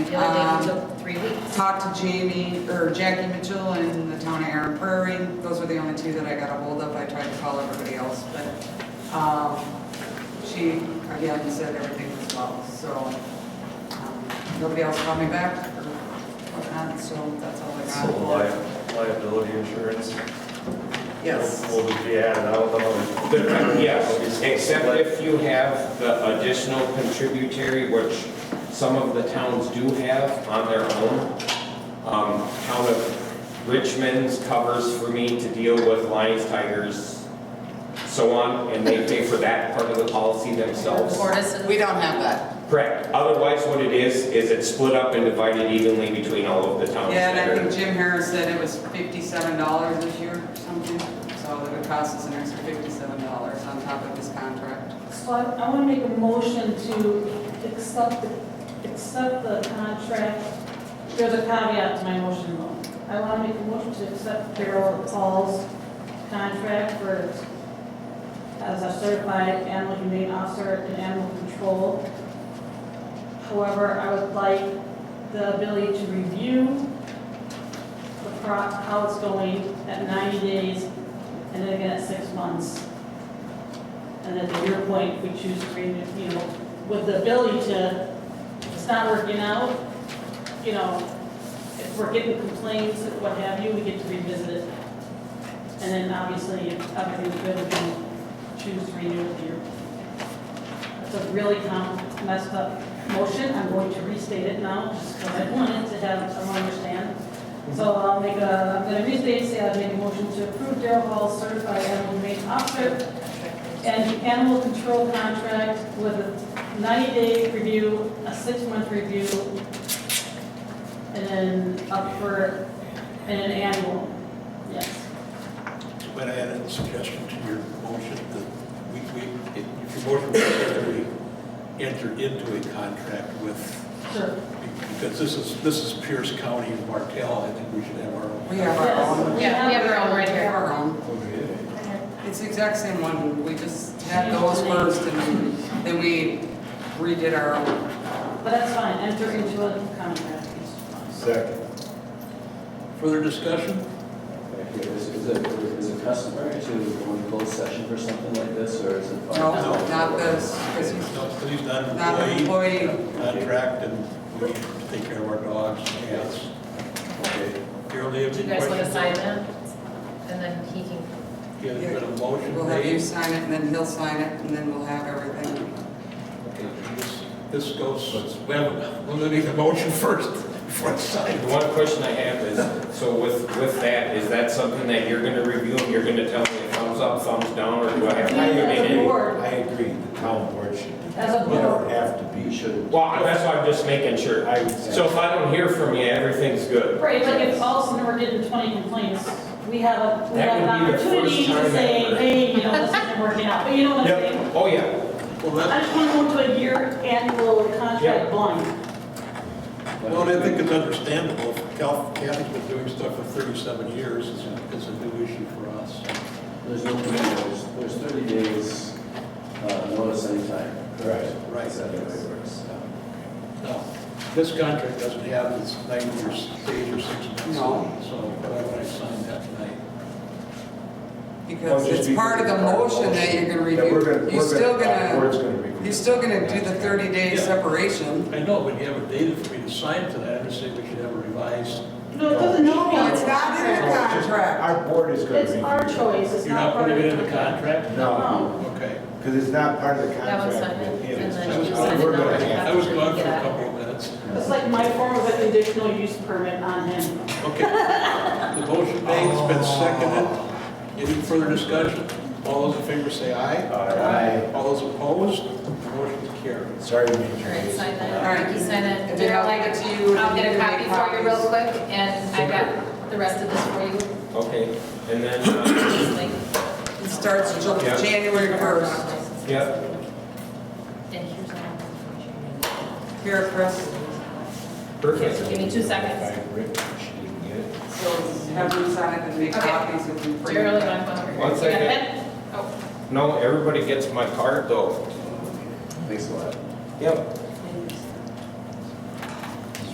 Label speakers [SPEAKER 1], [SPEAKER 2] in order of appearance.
[SPEAKER 1] The other day we took three weeks.
[SPEAKER 2] Um, Talked to Jamie, or Jackie Mitchell in the town of Aaron Prairie. Those were the only two that I got a hold of. I tried to call everybody else, but, um, she, again, said everything was well, so, um, nobody else called me back or whatnot, so that's all I got.
[SPEAKER 3] So li- liability insurance
[SPEAKER 2] Yes.
[SPEAKER 3] will be added, I don't know.
[SPEAKER 4] Yes, except if you have the additional contributory, which some of the towns do have on their own. Um, Town of Richmond's covers for me to deal with lions, tigers, so on, and they pay for that part of the policy themselves.
[SPEAKER 1] Tortoises.
[SPEAKER 5] We don't have that.
[SPEAKER 4] Correct. Otherwise, what it is, is it's split up and divided evenly between all of the towns.
[SPEAKER 2] Yeah, and
[SPEAKER 4] that
[SPEAKER 2] I
[SPEAKER 4] are-
[SPEAKER 2] think Jim Harris said it was fifty-seven dollars this year or something, so it would cost us an extra fifty-seven dollars on top of this contract.
[SPEAKER 6] So I, I want to make a motion to accept, the- accept the contract. There's a caveat to my motion though. I want to make a motion to accept Carol Paul's contract for, as a certified animal humane officer in animal control. However, I would like the ability to review the pro, how it's going at 90 days and then again at six months. And then to your point, we choose to bring, it, you know, with the ability to, it's not working out, you know, if we're getting complaints, and what have you, we get to revisit it. And then obviously, if everything's good, we can choose to renew it here. It's a really com, messed up motion, I'm going to restate it now, just because I wanted to have someone understand. So I'll make a, I'm gonna restate, say I'll make a motion to approve Daryl Hall certified animal humane officer and the animal control contract with a 90-day review, a six-month review, and then up for, and an annual, yes.
[SPEAKER 7] But I had a suggestion to your motion that we, we, if your motion was that we enter into a contract with,
[SPEAKER 6] Sure.
[SPEAKER 7] because this is, this is Pierce County and Martell, I think we should have our own.
[SPEAKER 2] We have our
[SPEAKER 6] Yes.
[SPEAKER 2] own.
[SPEAKER 1] Yeah, we have our own right
[SPEAKER 2] We have
[SPEAKER 1] here.
[SPEAKER 2] our own. It's the exact same one, we just had those first and then we redid our own.
[SPEAKER 6] But that's fine, enter into a contract.
[SPEAKER 3] Second.
[SPEAKER 7] Further discussion?
[SPEAKER 8] Is is it, is it customary to go in closed session for something like this, or is it? fine?
[SPEAKER 2] No, not this, because he's
[SPEAKER 7] No, because he's not
[SPEAKER 2] not an
[SPEAKER 7] an employee,
[SPEAKER 2] employee.
[SPEAKER 7] contract, and we take care of our dogs, cats.
[SPEAKER 8] Okay.
[SPEAKER 7] Carol, do you have
[SPEAKER 1] Do
[SPEAKER 7] any
[SPEAKER 1] you guys
[SPEAKER 7] questions?
[SPEAKER 1] want to sign that? And then he can,
[SPEAKER 7] Yeah, there's been a motion
[SPEAKER 2] We'll have you
[SPEAKER 7] made.
[SPEAKER 2] sign it and then he'll sign it and then we'll have everything.
[SPEAKER 7] This- This goes, well, we'll make the motion first, before it's signed.
[SPEAKER 4] The one question I have is, so with, with that, is that something that you're gonna review and you're gonna tell me thumbs up, thumbs down, or do I have to?
[SPEAKER 6] Yeah,
[SPEAKER 4] make
[SPEAKER 6] as a
[SPEAKER 4] any-
[SPEAKER 6] board,
[SPEAKER 9] I agree, the town board should, do
[SPEAKER 6] as a
[SPEAKER 9] that. you don't
[SPEAKER 6] board.
[SPEAKER 9] have to be,
[SPEAKER 8] You should.
[SPEAKER 4] Well, that's why I'm just making sure.
[SPEAKER 9] I would say.
[SPEAKER 4] So if I don't hear from you, everything's good.
[SPEAKER 6] Right, like if all of a sudden we're getting 20 complaints, we have, a we
[SPEAKER 4] That
[SPEAKER 6] have an
[SPEAKER 4] would be the first
[SPEAKER 6] opportunity to
[SPEAKER 4] time
[SPEAKER 6] say,
[SPEAKER 4] ever.
[SPEAKER 6] hey, you know, this isn't working out, but you know what I'm saying?
[SPEAKER 4] Yep, oh yeah.
[SPEAKER 7] Well, that-
[SPEAKER 6] I just want to go to a year annual contract blind.
[SPEAKER 7] Well, and I think it's understandable. Cal- Kathy's been doing stuff for 37 years. It's a- It's a new issue for us.
[SPEAKER 8] There's no, there's, there's thirty days, uh, notice anytime.
[SPEAKER 9] Right.
[SPEAKER 7] Right.
[SPEAKER 8] Is that the way it works?
[SPEAKER 7] No, this contract doesn't have this 90 or 60 or 6 months.
[SPEAKER 2] No.
[SPEAKER 7] So why would I sign that tonight?
[SPEAKER 2] Because it's part of the motion that you're gonna
[SPEAKER 9] That we're
[SPEAKER 2] review.
[SPEAKER 9] gonna-
[SPEAKER 2] You're
[SPEAKER 9] we're
[SPEAKER 2] still
[SPEAKER 9] The board's
[SPEAKER 2] gonna,
[SPEAKER 9] gonna review.
[SPEAKER 2] you're still gonna do the thirty day
[SPEAKER 7] Yeah.
[SPEAKER 2] separation.
[SPEAKER 7] I know, but you have a date for me to sign tonight. I'm just saying we should have a revised.
[SPEAKER 6] No, it doesn't need to be.
[SPEAKER 2] No, it's not in the contract.
[SPEAKER 9] Our board is gonna
[SPEAKER 6] It's
[SPEAKER 9] review.
[SPEAKER 6] our choice, it's
[SPEAKER 7] You're
[SPEAKER 6] not
[SPEAKER 7] not
[SPEAKER 6] part of
[SPEAKER 7] putting
[SPEAKER 6] the
[SPEAKER 7] it in the contract?
[SPEAKER 9] No,
[SPEAKER 6] No.
[SPEAKER 7] Okay.
[SPEAKER 9] because it's not part of the
[SPEAKER 1] that
[SPEAKER 9] contract.
[SPEAKER 1] one signed
[SPEAKER 9] with
[SPEAKER 1] it,
[SPEAKER 9] him.
[SPEAKER 1] and
[SPEAKER 7] That
[SPEAKER 1] then
[SPEAKER 7] was
[SPEAKER 1] you
[SPEAKER 7] gone.
[SPEAKER 1] sign
[SPEAKER 9] We're
[SPEAKER 1] another.
[SPEAKER 9] gonna have-
[SPEAKER 7] I was gone for a
[SPEAKER 1] Yeah.
[SPEAKER 7] couple of minutes.
[SPEAKER 6] It's like my form of a conditional use permit on him.
[SPEAKER 7] Okay. The motion made, it's been seconded. Any further discussion? All those in favor say aye.
[SPEAKER 9] Aye.
[SPEAKER 7] All those opposed, motion carried.
[SPEAKER 9] Sorry, Major.
[SPEAKER 1] all right, sign
[SPEAKER 2] All
[SPEAKER 1] that.
[SPEAKER 2] right.
[SPEAKER 1] Ricky, sign it.
[SPEAKER 2] And then I'll
[SPEAKER 1] Daryl,
[SPEAKER 2] give it to you.
[SPEAKER 1] I'll get a
[SPEAKER 2] You make
[SPEAKER 1] copy for you real
[SPEAKER 2] copies.
[SPEAKER 1] quick, and I got the rest of this for you.
[SPEAKER 4] Okay, and then, uh,
[SPEAKER 1] Just like-
[SPEAKER 2] It starts Ju-
[SPEAKER 4] Yeah.
[SPEAKER 2] January first.
[SPEAKER 4] yeah,
[SPEAKER 1] And here's all the information.
[SPEAKER 2] Here, Chris,
[SPEAKER 1] Okay, so
[SPEAKER 4] perfect.
[SPEAKER 1] give me two
[SPEAKER 9] By
[SPEAKER 1] seconds.
[SPEAKER 9] Rick, she didn't get it.
[SPEAKER 2] so have them sign it and make
[SPEAKER 1] Okay.
[SPEAKER 2] copies if you print.
[SPEAKER 1] Daryl, you want to come over?
[SPEAKER 4] One
[SPEAKER 1] You got
[SPEAKER 4] second.
[SPEAKER 1] that? Oh,
[SPEAKER 4] No, everybody gets my card though.
[SPEAKER 8] Thanks a lot.
[SPEAKER 4] Yep.
[SPEAKER 1] Oh.